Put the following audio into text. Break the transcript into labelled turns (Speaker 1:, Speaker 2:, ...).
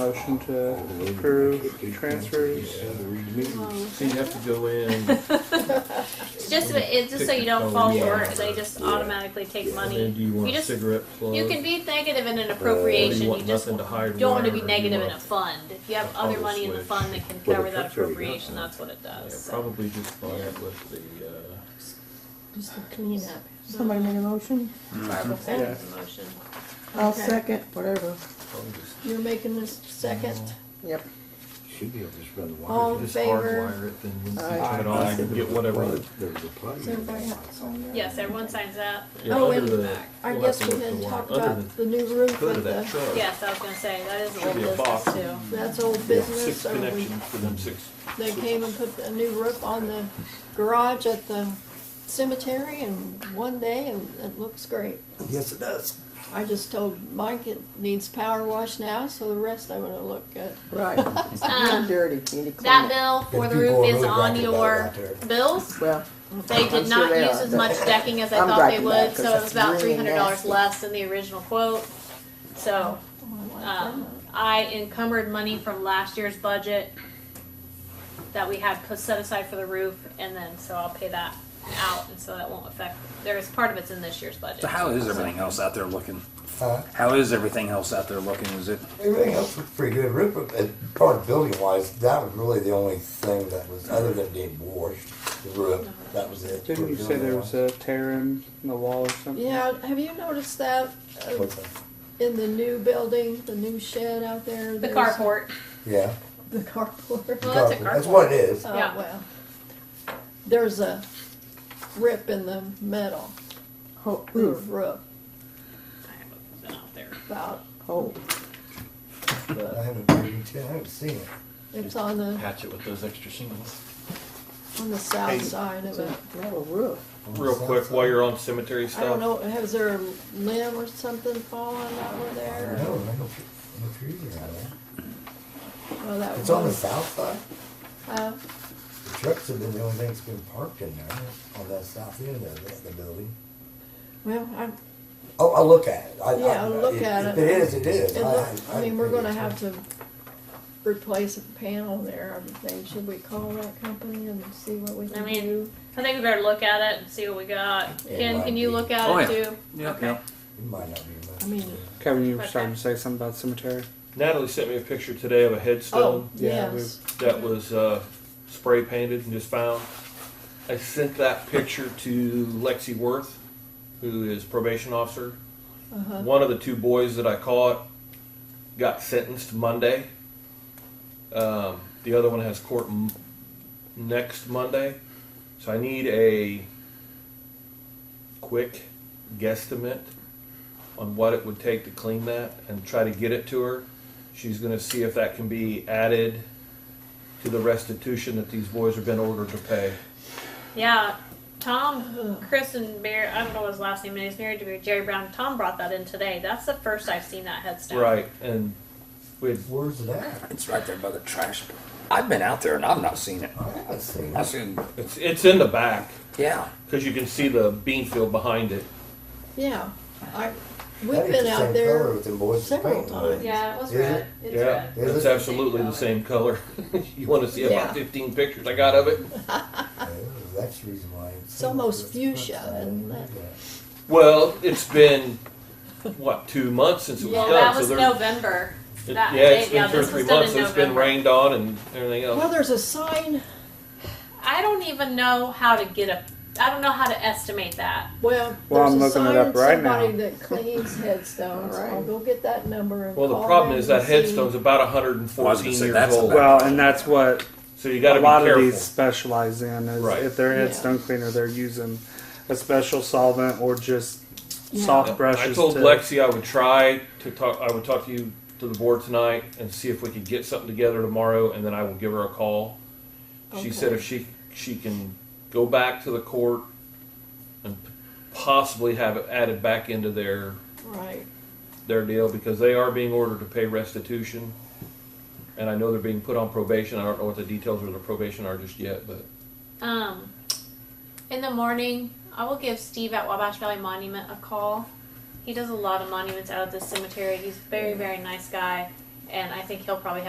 Speaker 1: motion to approve transfers.
Speaker 2: So you have to go in
Speaker 3: Oh. It's just it's just so you don't fall for it. They just automatically take
Speaker 2: and then do
Speaker 3: money.
Speaker 2: you want
Speaker 3: You just-
Speaker 2: cigarette plugs?
Speaker 3: You can be negative in an
Speaker 2: Or do
Speaker 3: appropriation.
Speaker 2: you
Speaker 3: You
Speaker 2: want
Speaker 3: just
Speaker 2: nothing to hide
Speaker 3: don't want to
Speaker 2: more,
Speaker 3: be
Speaker 2: or do you
Speaker 3: negative in a
Speaker 2: want-
Speaker 3: fund. If you have
Speaker 2: I'll
Speaker 3: other money in the
Speaker 2: switch.
Speaker 3: fund that can
Speaker 4: Well,
Speaker 3: cover
Speaker 4: it
Speaker 3: that
Speaker 4: cuts already out.
Speaker 3: appropriation, that's what it
Speaker 2: Yeah,
Speaker 3: does. so.
Speaker 2: probably just buy it with the. Uh,
Speaker 5: Just to clean up.
Speaker 6: Somebody make a motion?
Speaker 3: Barbara
Speaker 1: Yeah.
Speaker 3: seconds the motion.
Speaker 6: I'll
Speaker 5: Okay.
Speaker 6: second, whatever.
Speaker 2: probably just
Speaker 5: You're making this
Speaker 2: Uh,
Speaker 5: second.
Speaker 6: Yep.
Speaker 4: Should be able to just run the
Speaker 5: All
Speaker 4: wire.
Speaker 5: in
Speaker 2: just
Speaker 5: favor?
Speaker 2: hardwire it, then once
Speaker 6: Aye.
Speaker 2: you turn it on, you can get whatever.
Speaker 4: There was a plug.
Speaker 5: Does everybody have to sign that?
Speaker 3: Yes, everyone signs that.
Speaker 2: Yeah,
Speaker 5: Oh,
Speaker 2: other
Speaker 5: and
Speaker 2: than-
Speaker 5: I
Speaker 2: we'll
Speaker 5: guess
Speaker 2: have to
Speaker 5: we
Speaker 2: look
Speaker 5: didn't
Speaker 2: for
Speaker 5: talk
Speaker 2: one. Other
Speaker 5: about
Speaker 2: than
Speaker 5: the new roof
Speaker 2: hood
Speaker 5: of
Speaker 2: of that
Speaker 5: the,
Speaker 2: truck.
Speaker 3: Yes, I was gonna say that is
Speaker 2: Should
Speaker 3: old
Speaker 2: be a
Speaker 3: business
Speaker 2: box.
Speaker 3: too.
Speaker 5: that's old
Speaker 7: Six
Speaker 5: business. or we-
Speaker 7: connections for them six.
Speaker 5: They came and put a new roof on the garage at the cemetery in one day and it looks great.
Speaker 4: Yes, it does.
Speaker 5: I just told Mike it needs power wash now, so the rest I'm gonna look at.
Speaker 6: Right. It's
Speaker 3: Um,
Speaker 6: not dirty, you need to clean
Speaker 3: That
Speaker 6: it.
Speaker 3: bill
Speaker 4: And
Speaker 3: for the
Speaker 4: people
Speaker 3: roof
Speaker 4: are
Speaker 3: is
Speaker 4: really
Speaker 3: on
Speaker 4: griping about it
Speaker 3: your
Speaker 4: out there.
Speaker 3: bills.
Speaker 6: Well,
Speaker 3: They
Speaker 6: I'm
Speaker 3: did
Speaker 6: sure
Speaker 3: not
Speaker 6: they
Speaker 3: use
Speaker 6: are.
Speaker 3: as much decking as I
Speaker 6: I'm
Speaker 3: thought they
Speaker 6: griping that
Speaker 3: would,
Speaker 6: 'cause
Speaker 3: so it was
Speaker 6: that's
Speaker 3: about three
Speaker 6: really
Speaker 3: hundred dollars
Speaker 6: nasty.
Speaker 3: less than the original quote. So,
Speaker 5: Oh, I like
Speaker 3: um,
Speaker 5: that.
Speaker 3: I encumbered money from last year's budget that we had put set aside for the roof, and then, so I'll pay that out, and so that won't affect, there is part of it's in this year's budget.
Speaker 8: So how is everything else out there looking?
Speaker 4: Huh?
Speaker 8: How is everything else out there looking? Is it
Speaker 4: Uh, Everything else was pretty good. Roof, uh, part of building wise, that was really the only thing that was, other than being washed, the roof, that was it.
Speaker 1: Didn't you say there was a tear in the wall or something?
Speaker 5: Yeah, have you noticed that uh,
Speaker 4: What's that?
Speaker 5: in the new building, the new shed out there?
Speaker 3: The
Speaker 5: there's-
Speaker 3: carport,
Speaker 4: Yeah.
Speaker 5: The carport.
Speaker 3: Well, that's a
Speaker 4: That's
Speaker 3: carport.
Speaker 4: what it is.
Speaker 5: Oh,
Speaker 3: Yeah.
Speaker 5: well. There's a rip in the metal
Speaker 6: whole
Speaker 5: roof,
Speaker 6: roof,
Speaker 5: roof,
Speaker 3: I haven't been out there.
Speaker 5: about,
Speaker 6: whole.
Speaker 4: I haven't, I haven't seen it.
Speaker 5: it's on the,
Speaker 7: Patch it with those extra shingles.
Speaker 5: on the south side of it.
Speaker 6: metal roof.
Speaker 2: Real quick, while you're on cemetery
Speaker 5: I
Speaker 2: stuff,
Speaker 5: don't know, has there a limb or something fallen over there?
Speaker 4: No, I don't, no trees around there.
Speaker 5: Well, that
Speaker 4: It's on the
Speaker 5: was-
Speaker 4: south side.
Speaker 5: Uh,
Speaker 4: The trucks have been the only thing that's been parked in there, on that south end of the, the building.
Speaker 5: well, I,
Speaker 4: Oh, I'll look at it. I- I-
Speaker 5: Yeah, I'll look
Speaker 4: if-
Speaker 5: at
Speaker 4: If
Speaker 5: it.
Speaker 4: it is, it is.
Speaker 5: it look- I mean, we're gonna have to replace a panel there, I would think. Should we call that company and see what we
Speaker 3: I
Speaker 5: can
Speaker 3: mean,
Speaker 5: do?
Speaker 3: I think we better look at it and see what we got.
Speaker 4: It
Speaker 3: Ken,
Speaker 4: might
Speaker 3: can you
Speaker 4: be.
Speaker 3: look at
Speaker 8: Oh,
Speaker 3: it
Speaker 8: yeah.
Speaker 3: too?
Speaker 8: yeah,
Speaker 3: Uh, Okay.
Speaker 8: yeah.
Speaker 4: It might not be much.
Speaker 5: I mean,
Speaker 1: Kevin, you were
Speaker 3: Okay.
Speaker 1: starting to say something about cemetery.
Speaker 2: Natalie sent me a picture today of a
Speaker 5: oh,
Speaker 2: headstone
Speaker 1: yeah, we-
Speaker 5: yes.
Speaker 2: that was uh, spray painted and just found. I sent that picture to Lexi Worth, who is probation officer.
Speaker 5: Uh-huh.
Speaker 2: One of the two boys that I caught got sentenced Monday. Um, the other one has court m- next Monday. So I need a quick guesstimate on what it would take to clean that and try to get it to her. She's going to see if that can be added to the restitution that these boys have been ordered to pay.
Speaker 3: Yeah, Tom, Chris, and Bear. I don't know his last name, and he's married to Jerry Brown. Tom brought that in today. That's the first I've seen that headstone.
Speaker 2: Right. And we
Speaker 4: Where's it at?
Speaker 8: It's right there by the trash. I've been out there and I've not seen it.
Speaker 4: I haven't seen
Speaker 8: I've
Speaker 4: it.
Speaker 8: seen,
Speaker 2: it's, it's in the back.
Speaker 8: yeah.
Speaker 2: Because you can see the bean field behind it.
Speaker 5: Yeah, I,
Speaker 4: That
Speaker 5: we've
Speaker 4: is
Speaker 5: been
Speaker 4: the
Speaker 5: out
Speaker 4: same color
Speaker 5: there
Speaker 4: with them boys
Speaker 5: several
Speaker 4: painting on it.
Speaker 3: Yeah, it was
Speaker 4: Is
Speaker 3: red.
Speaker 4: it?
Speaker 3: It's
Speaker 2: yeah,
Speaker 3: red.
Speaker 4: red.
Speaker 2: it's
Speaker 4: Is it?
Speaker 2: absolutely the same color. you want to see
Speaker 5: Yeah.
Speaker 2: about 15 pictures I got of it?
Speaker 4: Yeah, That's the reason why.
Speaker 5: It's almost fuchsia, isn't it?
Speaker 2: Well, it's been, what, two months since it was
Speaker 3: Well,
Speaker 2: done?
Speaker 3: that was
Speaker 2: there-
Speaker 3: November.
Speaker 2: it-
Speaker 3: That,
Speaker 2: yeah, it's
Speaker 3: they-
Speaker 2: been
Speaker 3: yeah,
Speaker 2: two or
Speaker 3: this
Speaker 2: three
Speaker 3: was done
Speaker 2: months.
Speaker 3: in
Speaker 2: It's been
Speaker 3: November.
Speaker 2: rained on and everything else.
Speaker 5: well, there's a sign,
Speaker 3: I don't even know how to get a. I don't know how to estimate that.
Speaker 5: well,
Speaker 1: Well,
Speaker 5: there's
Speaker 1: I'm
Speaker 5: a
Speaker 1: looking it
Speaker 5: sign,
Speaker 1: up right
Speaker 5: somebody
Speaker 1: now.
Speaker 5: that cleans headstones,
Speaker 6: All right.
Speaker 5: I'll go get that number and
Speaker 2: well, the
Speaker 5: call
Speaker 2: problem
Speaker 5: them
Speaker 2: is
Speaker 5: and
Speaker 2: that
Speaker 5: see.
Speaker 2: headstone's about
Speaker 8: Well, I was
Speaker 2: 114
Speaker 8: gonna say,
Speaker 2: years
Speaker 8: that's a
Speaker 2: old.
Speaker 8: lot.
Speaker 1: Well, and that's what
Speaker 2: so you got
Speaker 1: a
Speaker 2: to be
Speaker 1: lot
Speaker 2: careful.
Speaker 1: of these specialize in is
Speaker 2: Right.
Speaker 1: if they're
Speaker 5: Yeah.
Speaker 1: headstone cleaner, they're using a special solvent or just
Speaker 5: Yeah.
Speaker 1: soft brushes.
Speaker 2: Uh, I told
Speaker 1: to,
Speaker 2: Lexi I would try to talk. I would talk to you to the board tonight and see if we could get something together tomorrow, and then I will give her a call. She said
Speaker 5: Okay.
Speaker 2: if she she can go back to the court and possibly have it added back into their
Speaker 5: Right,
Speaker 2: their deal because they are being ordered to pay restitution, and I know they're being put on probation. I don't know what the details of the probation are just yet, but
Speaker 3: Um, in the morning, I will give Steve at Wabash Valley Monument a call. He does a lot of monuments out at this cemetery. He's a very, very nice guy. And I think he'll probably have